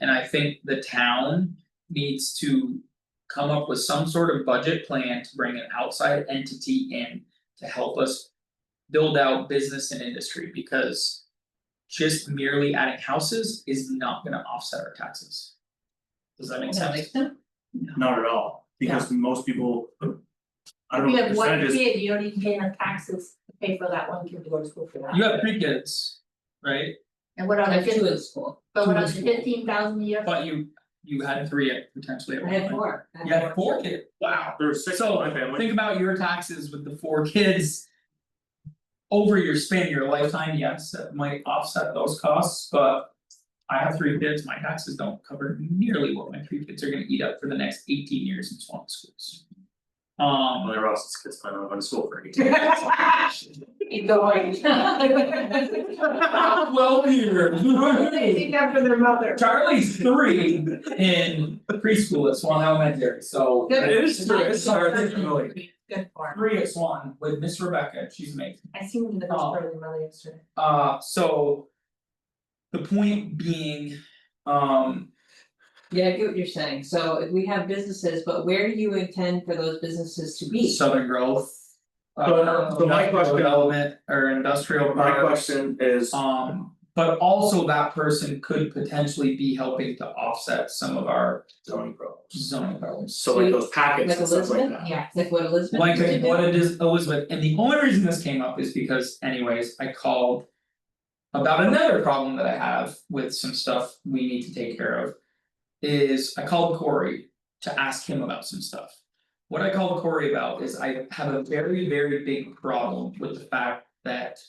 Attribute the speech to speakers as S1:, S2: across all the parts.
S1: And I think the town needs to come up with some sort of budget plan to bring an outside entity in to help us. Build out business and industry because just merely adding houses is not gonna offset our taxes. Does that make sense?
S2: Not at all, because most people. I
S3: If
S2: don't
S3: you
S2: know, the
S3: have one
S2: percentages,
S3: kid, you don't even pay enough taxes to pay for that one kid to go to school for that.
S1: You have three kids, right?
S3: And what
S4: I
S3: other
S4: have two
S3: fifteen,
S4: in school,
S3: but what
S4: two in
S3: other
S4: school.
S3: fifteen thousand a year?
S1: But you you had three at potentially at
S4: I
S1: one
S4: have
S1: point.
S4: four. I
S1: You had four kids, wow.
S2: there were six in
S1: So,
S2: my family,
S1: Think about your taxes with the four kids. Over your span, your lifetime, yes, that might offset those costs, but. I have three kids, my taxes don't cover nearly what my three kids are gonna eat up for the next eighteen years in Swan schools. Um,
S2: Emily Ross's kids might not have been to school for eighteen years.
S1: well, Peter.
S3: after their mother.
S1: Charlie's three in preschool at Swan Elementary, so.
S3: Good.
S1: It's hard, it's really-
S3: Good farm.
S1: Three at Swan with Miss Rebecca, she's amazing.
S3: I seen them in the first
S1: Oh.
S3: part of the mother yesterday.
S1: Uh, so. The point being, um,
S4: Yeah, I get what you're saying, so if we have businesses, but where do you intend for those businesses to be?
S1: Southern growth. uh,
S2: So- so my
S1: industrial
S2: question-
S1: Development or industrial
S2: My
S1: products,
S2: question is,
S1: um, but also that person could potentially be helping to offset some of our
S2: zoning problems,
S1: zoning problems.
S2: so like those packets
S4: Like
S2: and stuff like
S4: Elizabeth?
S2: that.
S3: Yeah.
S4: Like what Elizabeth
S1: Like
S4: used to do?
S1: what it is Elizabeth, and the only reason this came up is because anyways, I called. About another problem that I have with some stuff we need to take care of. Is I called Corey to ask him about some stuff. What I called Corey about is I have a very, very big problem with the fact that.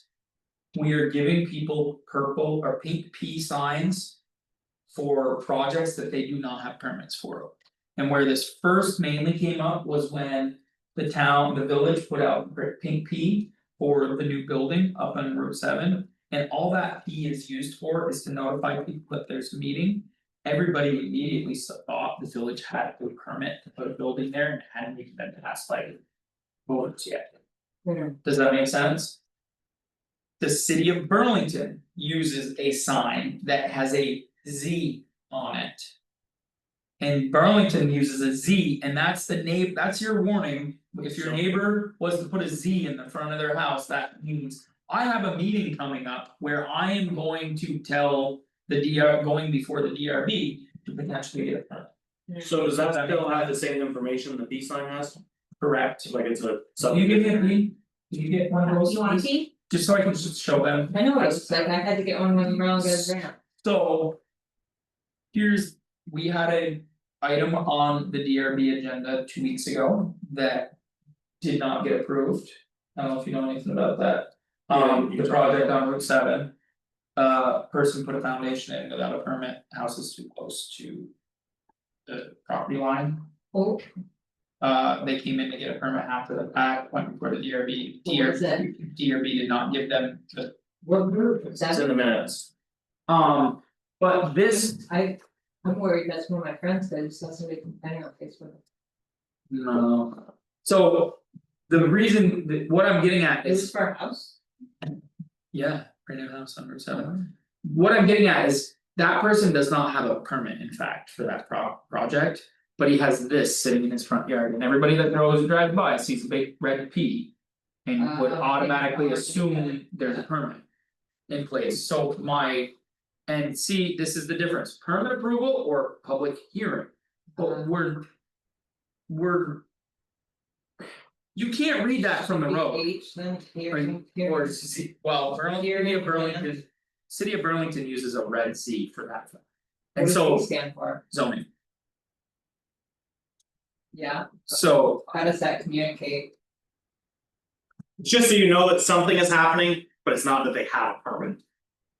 S1: We are giving people purple or pink P signs. For projects that they do not have permits for. And where this first mainly came up was when the town, the village put out gr- pink P for the new building up on Route seven. And all that P is used for is to notify people that there's a meeting. Everybody immediately s- thought the village had a permit to put a building there and hadn't even been passed by voters yet. Does that make sense? The city of Burlington uses a sign that has a Z on it. And Burlington uses a Z and that's the name, that's your warning, if your
S2: Sure.
S1: neighbor was to put a Z in the front of their house, that means. I have a meeting coming up where I am going to tell the DR, going before the DRB to potentially get a permit,
S2: So does that still have the same information the peace sign has,
S1: correct?
S2: like it's a
S1: So
S2: sub?
S1: you give me, a green? Can you get one of those,
S3: You want
S1: please?
S3: tea?
S1: just so I can just show them.
S4: I know what it looks like, I had to get one when Merle goes down.
S1: So. Here's, we had a item on the DRB agenda two weeks ago that. Did not get approved, I don't know if you know anything about that, um, the project on Route seven. Uh, person put a foundation in without a permit, house is too close to. The property line,
S4: Oh,
S1: uh, they came in to get a permit after the fact, went before the DRB,
S4: What was
S1: DRB, DRB did not give them the,
S4: what group is
S2: It's
S4: that?
S2: in the minutes,
S1: um. But this
S4: I, I'm worried, that's one of my friends, said. I just saw somebody complaining on Facebook.
S1: No. So the reason that what I'm getting at
S4: It was
S1: is,
S4: for a house?
S1: yeah, right now house number seven. What I'm getting at is that person does not have a permit in fact for that pro- project. But he has this sitting in his front yard and everybody that knows and drives by sees a big red P. And would
S4: Uh, okay.
S1: automatically assume there's a permit. In place, so my. And see, this is the difference, permit approval or public hearing, but
S4: Uh-huh.
S1: we're. We're. You can't read that from the road.
S4: Each, then here,
S1: Right,
S4: then here.
S1: Or C- well, Burlington,
S4: Here,
S1: City of
S4: here, yeah.
S1: Burlington, City of Burlington uses a red C for that.
S4: What
S1: And
S4: does
S1: so
S4: it stand for,
S1: zoning,
S4: yeah,
S1: so
S4: how does that communicate?
S2: just so you know that something is happening, but it's not that they have a permit.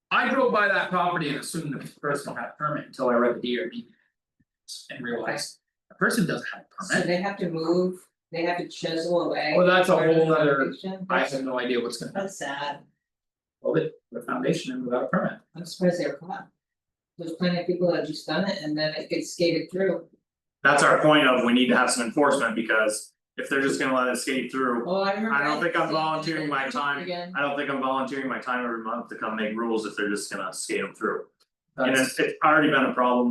S1: I drove by that property and assumed the person had a permit until I read the DRB. And realized the person doesn't have a
S4: So
S1: permit,
S4: they have to move, they have to chisel away.
S1: well, that's a
S4: part of the
S1: whole other,
S4: foundation?
S1: I have no idea what's gonna happen,
S4: That's sad,
S1: with it, the foundation and without a permit.
S4: I'm surprised they were caught. There's plenty of people that just done it and then it gets skated through,
S2: That's our point of, we need to have some enforcement, because if they're just gonna let it skate through,
S4: well, Oh, I remember.
S2: I don't think I'm
S4: said-
S2: volunteering my time.
S4: Again,
S2: I don't think I'm volunteering my time every month to come make rules if they're just gonna skate them through. And
S1: That's-
S2: it's it's already been a problem